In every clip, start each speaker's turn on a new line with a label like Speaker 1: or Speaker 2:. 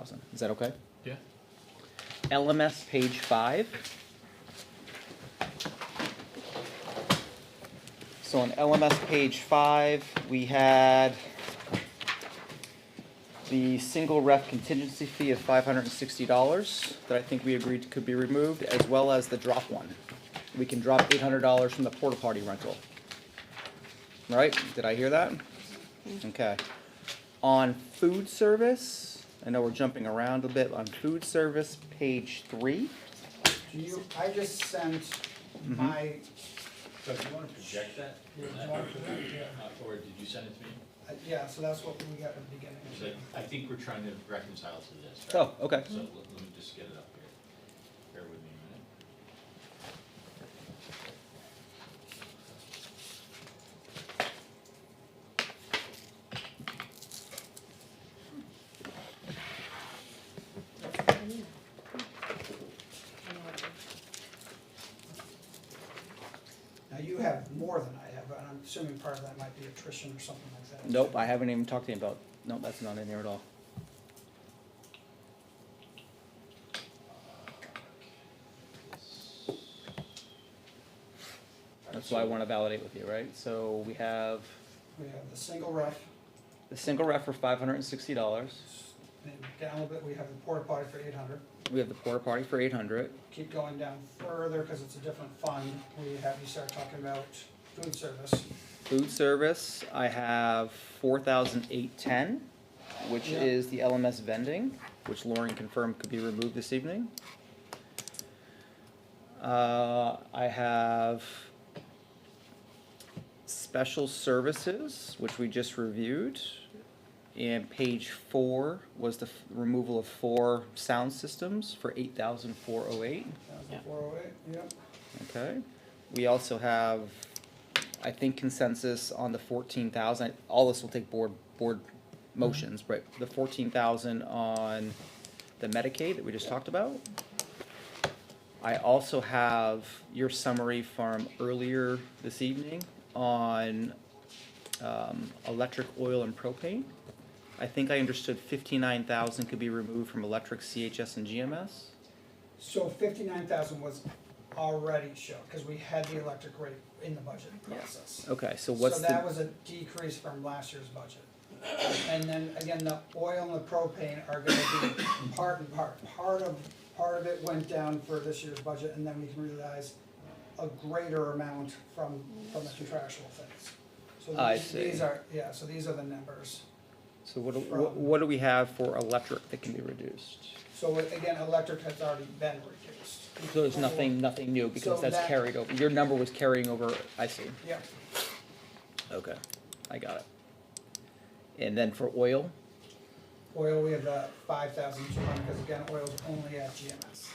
Speaker 1: thousand. Is that okay?
Speaker 2: Yeah.
Speaker 1: LMS page five. So on LMS page five, we had the single ref contingency fee of five hundred and sixty dollars that I think we agreed could be removed, as well as the drop one. We can drop eight hundred dollars from the porta potty rental. Right? Did I hear that? Okay. On food service, I know we're jumping around a bit, on food service, page three.
Speaker 3: Do you, I just sent
Speaker 1: Mm-hmm.
Speaker 3: my,
Speaker 2: So do you want to project that?
Speaker 3: Yeah,
Speaker 2: Uh,
Speaker 3: do you want to project, yeah.
Speaker 2: uh, Or did you send it to me?
Speaker 3: uh, yeah, so that's what we got at the beginning.
Speaker 2: 'Cause I- I think we're trying to reconcile to this, right?
Speaker 1: Oh, okay.
Speaker 2: So let let me just get it up here. Bear with me a minute.
Speaker 3: Now, you have more than I have, and I'm assuming part of that might be attrition or something like that.
Speaker 1: Nope, I haven't even talked to him about, nope, that's not in there at all. That's why I wanna validate with you, right? So we have
Speaker 3: We have the single ref,
Speaker 1: the single ref for five hundred and sixty dollars.
Speaker 3: and down a little bit, we have the porta potty for eight hundred.
Speaker 1: We have the porta party for eight hundred.
Speaker 3: Keep going down further, because it's a different fund, we have you start talking about food service.
Speaker 1: Food service, I have four thousand eight ten, which
Speaker 3: Yeah.
Speaker 1: is the LMS vending, which Lauren confirmed could be removed this evening. Uh, I have special services, which we just reviewed. And page four was the f- removal of four sound systems for eight thousand four oh eight.
Speaker 3: Thousand four oh eight, yep.
Speaker 1: Okay, we also have, I think consensus on the fourteen thousand, all this will take board, board motions, but the fourteen thousand on the Medicaid that we just talked about. I also have your summary from earlier this evening on, um, electric, oil, and propane. I think I understood fifty-nine thousand could be removed from electric, CHS, and GMS.
Speaker 3: So fifty-nine thousand was already shown, because we had the electric rate in the budget process.
Speaker 1: Okay, so what's
Speaker 3: So
Speaker 1: the?
Speaker 3: that was a decrease from last year's budget. And then again, the oil and the propane are gonna be part and part. Part of, part of it went down for this year's budget and then we can realize a greater amount from, from the contractual things. So
Speaker 1: I
Speaker 3: these-
Speaker 1: see.
Speaker 3: These are, yeah, so these are the numbers.
Speaker 1: So what do, what,
Speaker 3: from-
Speaker 1: what do we have for electric that can be reduced?
Speaker 3: So again, electric has already been reduced.
Speaker 1: So there's nothing, nothing new because
Speaker 3: So
Speaker 1: that's
Speaker 3: that-
Speaker 1: carried over, your number was carrying over, I see,
Speaker 3: Yeah,
Speaker 1: okay, I got it. And then for oil,
Speaker 3: oil, we have the five thousand two hundred, because again, oil's only at GMS.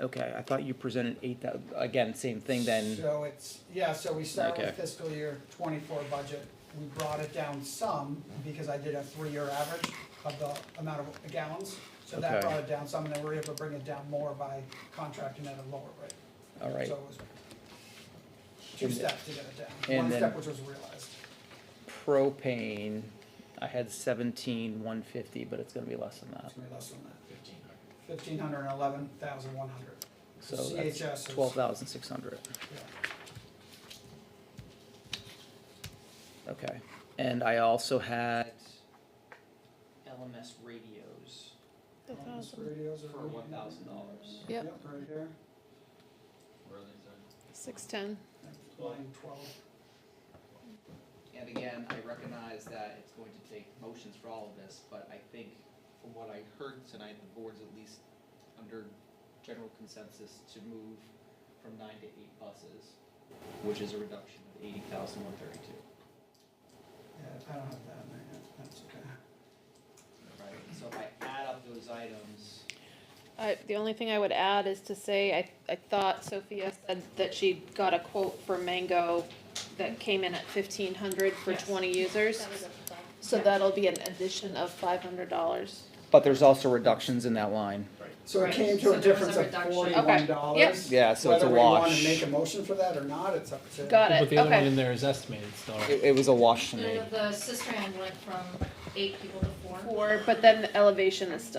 Speaker 1: okay, I thought you presented eight thou, again, same thing then,
Speaker 3: So it's, yeah, so we start with
Speaker 1: Okay.
Speaker 3: fiscal year twenty-four budget, we brought it down some, because I did a three-year average of the amount of gallons. So that
Speaker 1: Okay.
Speaker 3: brought it down some, and then we were able to bring it down more by contracting at a lower rate.
Speaker 1: all right.
Speaker 3: So it was two
Speaker 1: And the-
Speaker 3: steps to get it
Speaker 1: and
Speaker 3: down, one
Speaker 1: then-
Speaker 3: step which was realized.
Speaker 1: Propane, I had seventeen one fifty, but it's gonna be less than that,
Speaker 3: It's gonna be less than that,
Speaker 2: Fifteen hundred.
Speaker 3: fifteen hundred and eleven thousand one hundred.
Speaker 1: so
Speaker 3: CHS
Speaker 1: that's
Speaker 3: is-
Speaker 1: twelve thousand six hundred, okay. And I also had LMS radios
Speaker 3: Radios are.
Speaker 1: for one thousand dollars.
Speaker 4: Yep.
Speaker 3: Yep, right here,
Speaker 2: Where are they, sorry?
Speaker 4: Six ten.
Speaker 3: line twelve.
Speaker 1: And again, I recognize that it's going to take motions for all of this, but I think from what I heard tonight, the board's at least under general consensus to move from nine to eight buses, which is a reduction of eighty thousand one thirty-two,
Speaker 3: Yeah, I don't have that in there yet, that's okay.
Speaker 1: right? So if I add up those items,
Speaker 4: I, the only thing I would add is to say, I, I thought Sophia said that she got a quote from Mango that came in at fifteen hundred for
Speaker 5: Yes.
Speaker 4: twenty users. So that'll be an addition of five hundred dollars.
Speaker 1: but there's also reductions in that line.
Speaker 3: So it
Speaker 5: Right.
Speaker 3: came
Speaker 5: So
Speaker 3: to a
Speaker 5: there was a
Speaker 3: difference of
Speaker 5: reduction.
Speaker 3: forty-one
Speaker 4: Okay.
Speaker 3: dollars.
Speaker 4: Yep.
Speaker 1: Yeah, so it's a
Speaker 3: Whether we wanna
Speaker 1: wash.
Speaker 3: make a motion for that or not, it's up to.
Speaker 4: Got
Speaker 6: But
Speaker 4: it,
Speaker 6: the other one
Speaker 4: okay.
Speaker 6: in there is estimated, so.
Speaker 1: It, it was a wash to me.
Speaker 5: The cistern went from eight people to
Speaker 4: four, but then the elevation is still